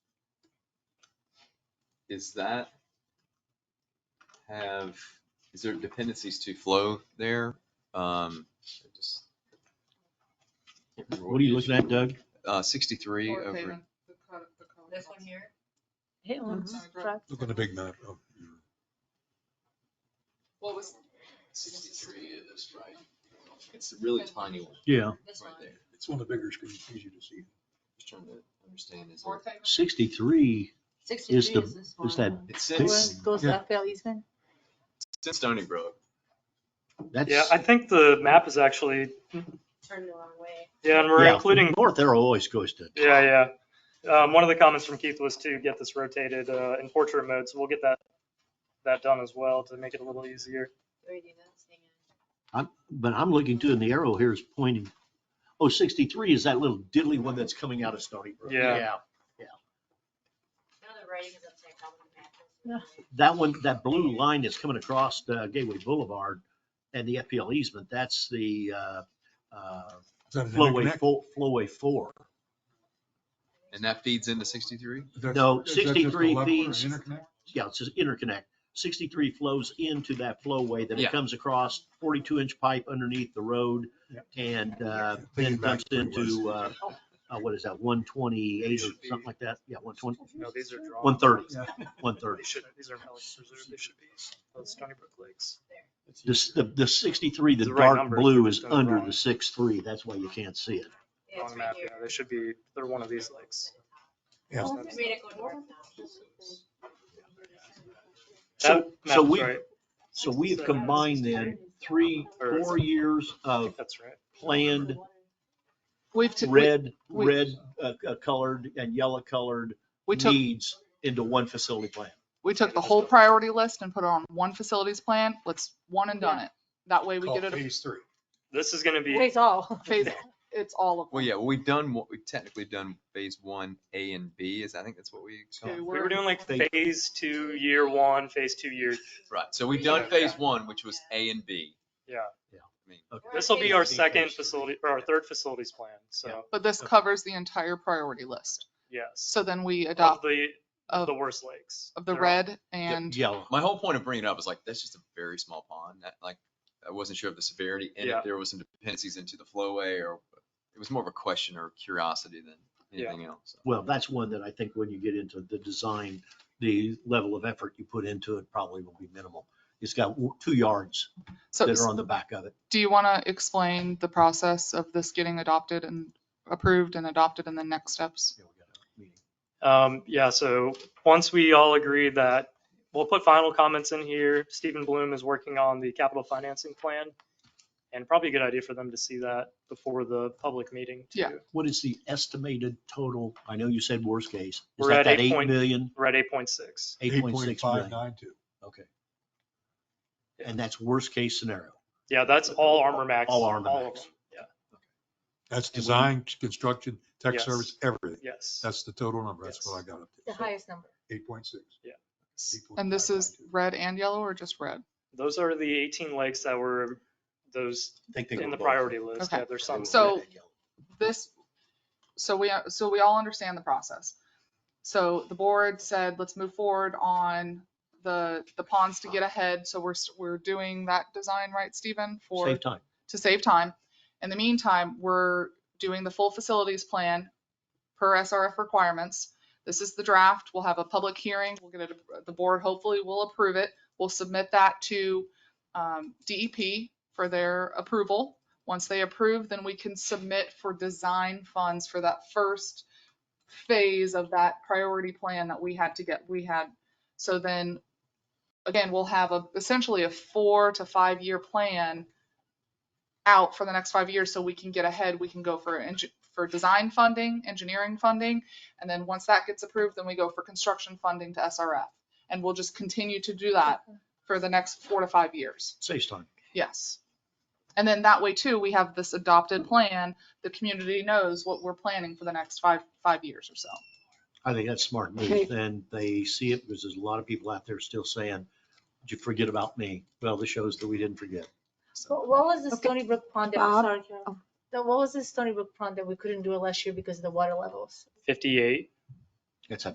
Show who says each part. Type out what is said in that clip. Speaker 1: is that have, is there dependencies to flow there? Um, I just can't remember
Speaker 2: What are you
Speaker 1: it is.
Speaker 2: looking at, Doug?
Speaker 1: Uh, sixty-three
Speaker 3: Or
Speaker 1: over,
Speaker 3: Haven, the color- the color
Speaker 4: This one
Speaker 3: box.
Speaker 4: here?
Speaker 5: It was
Speaker 3: Mhm.
Speaker 5: struck-
Speaker 6: Look on the big map. of your-
Speaker 3: What was,
Speaker 1: sixty-three is right. It's a really tiny one
Speaker 2: Yeah,
Speaker 4: This
Speaker 1: right
Speaker 4: one?
Speaker 1: there.
Speaker 6: It's on the bigger screen, it's easier to see.
Speaker 1: Just trying to understand is
Speaker 3: fourth
Speaker 1: it,
Speaker 3: Haven?
Speaker 2: sixty-three
Speaker 4: Sixty-three
Speaker 2: is the,
Speaker 4: is this one.
Speaker 2: is that,
Speaker 1: it's
Speaker 5: it
Speaker 1: since,
Speaker 5: was- goes
Speaker 6: Yeah.
Speaker 5: to FL Eastman.
Speaker 1: it's in Stony Brook.
Speaker 2: that's.
Speaker 7: Yeah, I think the map is actually,
Speaker 4: Turned the wrong way.
Speaker 7: yeah, and we're
Speaker 2: yeah,
Speaker 7: including,
Speaker 2: North arrow always goes to.
Speaker 7: yeah, yeah. Um, one of the comments from Keith was to get this rotated, uh, in portrait mode, so we'll get that, that done as well to make it a little easier.
Speaker 4: We already did that, so hang on.
Speaker 2: I'm, but I'm looking too, and the arrow here is pointing, oh, sixty-three is that little diddly one that's coming out of Stony Brook.
Speaker 7: Yeah.
Speaker 4: Now the writing is upside down on the map.
Speaker 2: That one, that blue line that's coming across uh, Gateway Boulevard and the FPL easement, that's the uh, uh,
Speaker 6: Is that an
Speaker 2: flowway,
Speaker 6: interconnect?
Speaker 2: fo- flowway four.
Speaker 1: And that feeds into sixty-three?
Speaker 6: That's-
Speaker 2: No,
Speaker 6: is that just a
Speaker 2: 63
Speaker 6: level or an
Speaker 2: feeds-
Speaker 6: interconnect?
Speaker 2: Yeah, it's just interconnect. Sixty-three flows into that flowway, then
Speaker 1: Yeah.
Speaker 2: it comes across forty-two inch pipe underneath the road
Speaker 6: Yep.
Speaker 2: and uh,
Speaker 6: Yeah,
Speaker 2: then
Speaker 6: thinking back
Speaker 2: dumps
Speaker 6: to where it was.
Speaker 2: into, uh, uh, what is that, one twenty-eight or
Speaker 1: Should be-
Speaker 2: something like that? Yeah, one twenty,
Speaker 7: No, these are drawn.
Speaker 2: one thirty,
Speaker 6: Yeah.
Speaker 2: one thirty.
Speaker 7: They shouldn't, these are Pelican Preserve, they should be uh, Stony Brook Lakes.
Speaker 2: This, the, the sixty-three, the
Speaker 7: It's the right
Speaker 2: dark
Speaker 7: number,
Speaker 2: blue
Speaker 7: it's
Speaker 2: is
Speaker 7: just
Speaker 2: under
Speaker 7: wrong.
Speaker 2: the six-three, that's why you can't see it.
Speaker 4: Yeah, it's
Speaker 7: Wrong
Speaker 4: right
Speaker 7: map,
Speaker 4: here.
Speaker 7: yeah, they should be, they're one of these lakes.
Speaker 6: Yeah.
Speaker 4: We made it go north now.
Speaker 2: So,
Speaker 7: That
Speaker 2: so
Speaker 7: map's
Speaker 2: we,
Speaker 7: right.
Speaker 2: so we've combined then three,
Speaker 7: Or-
Speaker 2: four years
Speaker 7: I
Speaker 2: of
Speaker 7: think that's right.
Speaker 2: planned
Speaker 3: We've, t- we-
Speaker 2: red,
Speaker 3: we-
Speaker 2: red uh, uh, colored and yellow colored
Speaker 3: we took,
Speaker 2: needs into one facility plan.
Speaker 3: we took the whole priority list and put it on one facilities plan. Let's one and done it. That way we
Speaker 6: Called
Speaker 3: get it,
Speaker 6: Phase three.
Speaker 7: This is gonna be,
Speaker 5: Face all.
Speaker 3: phase, it's all of
Speaker 1: Well,
Speaker 3: them.
Speaker 1: yeah, well, we've done, what we've technically done phase one, A and B is, I think that's what we.
Speaker 3: Okay,
Speaker 7: we were
Speaker 3: we're-
Speaker 7: doing like
Speaker 2: Phase-
Speaker 7: phase two, year one, phase two, year
Speaker 1: Right, so we've done
Speaker 7: Yeah.
Speaker 1: phase one, which was A and B.
Speaker 7: Yeah.
Speaker 2: Yeah.
Speaker 1: I mean,
Speaker 7: This will be our
Speaker 2: Phase
Speaker 7: second
Speaker 2: three.
Speaker 7: facility, or our third facilities plan, so,
Speaker 3: But this
Speaker 2: Okay.
Speaker 3: covers the entire priority list.
Speaker 7: yes.
Speaker 3: So then we
Speaker 7: Of
Speaker 3: adopt
Speaker 7: the,
Speaker 3: of,
Speaker 7: Oh, the worst lakes.
Speaker 3: of the
Speaker 7: They're-
Speaker 3: red
Speaker 2: Yeah,
Speaker 3: and
Speaker 2: Yellow.
Speaker 1: My whole point of bringing it up is like, that's just a very small pond, that like, I wasn't sure of the severity and
Speaker 7: Yeah.
Speaker 1: if there was some dependencies into the flowway or, it was more of a question or curiosity than
Speaker 7: Yeah.
Speaker 1: anything else.
Speaker 2: Well, that's one that I think when you get into the design, the level of effort you put into it probably will be minimal. It's got w- two yards
Speaker 3: so
Speaker 2: that are on the back of it.
Speaker 3: do you want to explain the process of this getting adopted and approved and adopted and then next steps?
Speaker 2: Yeah, we got a meeting.
Speaker 7: Um, yeah, so once we all agree that, we'll put final comments in here. Stephen Bloom is working on the capital financing plan. And probably a good idea for them to see that before the public meeting too.
Speaker 3: Yeah.
Speaker 2: What is the estimated total? I know you said worst case. Is
Speaker 7: We're
Speaker 2: that
Speaker 7: at
Speaker 2: that
Speaker 7: 8
Speaker 2: eight
Speaker 7: point-
Speaker 2: million,
Speaker 7: We're at eight point six.
Speaker 2: eight point six million?
Speaker 6: 8.592.
Speaker 2: Okay. And that's worst case scenario.
Speaker 7: Yeah, that's all Armor Max.
Speaker 2: All Armor
Speaker 7: of
Speaker 2: Max.
Speaker 7: them. Yeah,
Speaker 6: That's design, construction, tech
Speaker 7: Yes.
Speaker 6: service, everything.
Speaker 7: yes.
Speaker 6: That's the total number. That's what I got up
Speaker 4: The
Speaker 6: to.
Speaker 4: highest number.
Speaker 6: Eight point six.
Speaker 7: Yeah.
Speaker 3: And this is red and yellow or just red?
Speaker 7: Those are the eighteen lakes that were those
Speaker 2: I think they
Speaker 7: in
Speaker 2: were
Speaker 7: the
Speaker 2: both.
Speaker 7: priority list.
Speaker 3: Okay.
Speaker 7: Yeah, there's some.
Speaker 3: So- this, so we, so we all understand the process. So the board said, let's move forward on the, the ponds to get ahead. So we're, s- we're doing that design, right, Stephen? For,
Speaker 2: Save time.
Speaker 3: to save time. In the meantime, we're doing the full facilities plan per SRF requirements. This is the draft. We'll have a public hearing. We'll get it, the board hopefully will approve it. We'll submit that to um, DEP for their approval. Once they approve, then we can submit for design funds for that first phase of that priority plan that we had to get, we had. So then, again, we'll have a, essentially a four to five-year plan out for the next five years so we can get ahead. We can go for, eng- for design funding, engineering funding. And then once that gets approved, then we go for construction funding to SRF. And we'll just continue to do that for the next four to five years.
Speaker 2: Saves time.
Speaker 3: Yes. And then that way too, we have this adopted plan. The community knows what we're planning for the next five, five years or so.
Speaker 2: I think that's smart
Speaker 5: Okay.
Speaker 2: move. Then they see it because there's a lot of people out there still saying, did you forget about me? Well, this shows that we didn't forget.
Speaker 4: What, what was the
Speaker 5: Okay.
Speaker 4: Stony Brook pond that,
Speaker 5: Bob?
Speaker 4: sorry, Carol.
Speaker 5: Oh.
Speaker 4: No, what was the Stony Brook pond that we couldn't do it last year because of the water levels?
Speaker 7: Fifty-eight.
Speaker 2: That's a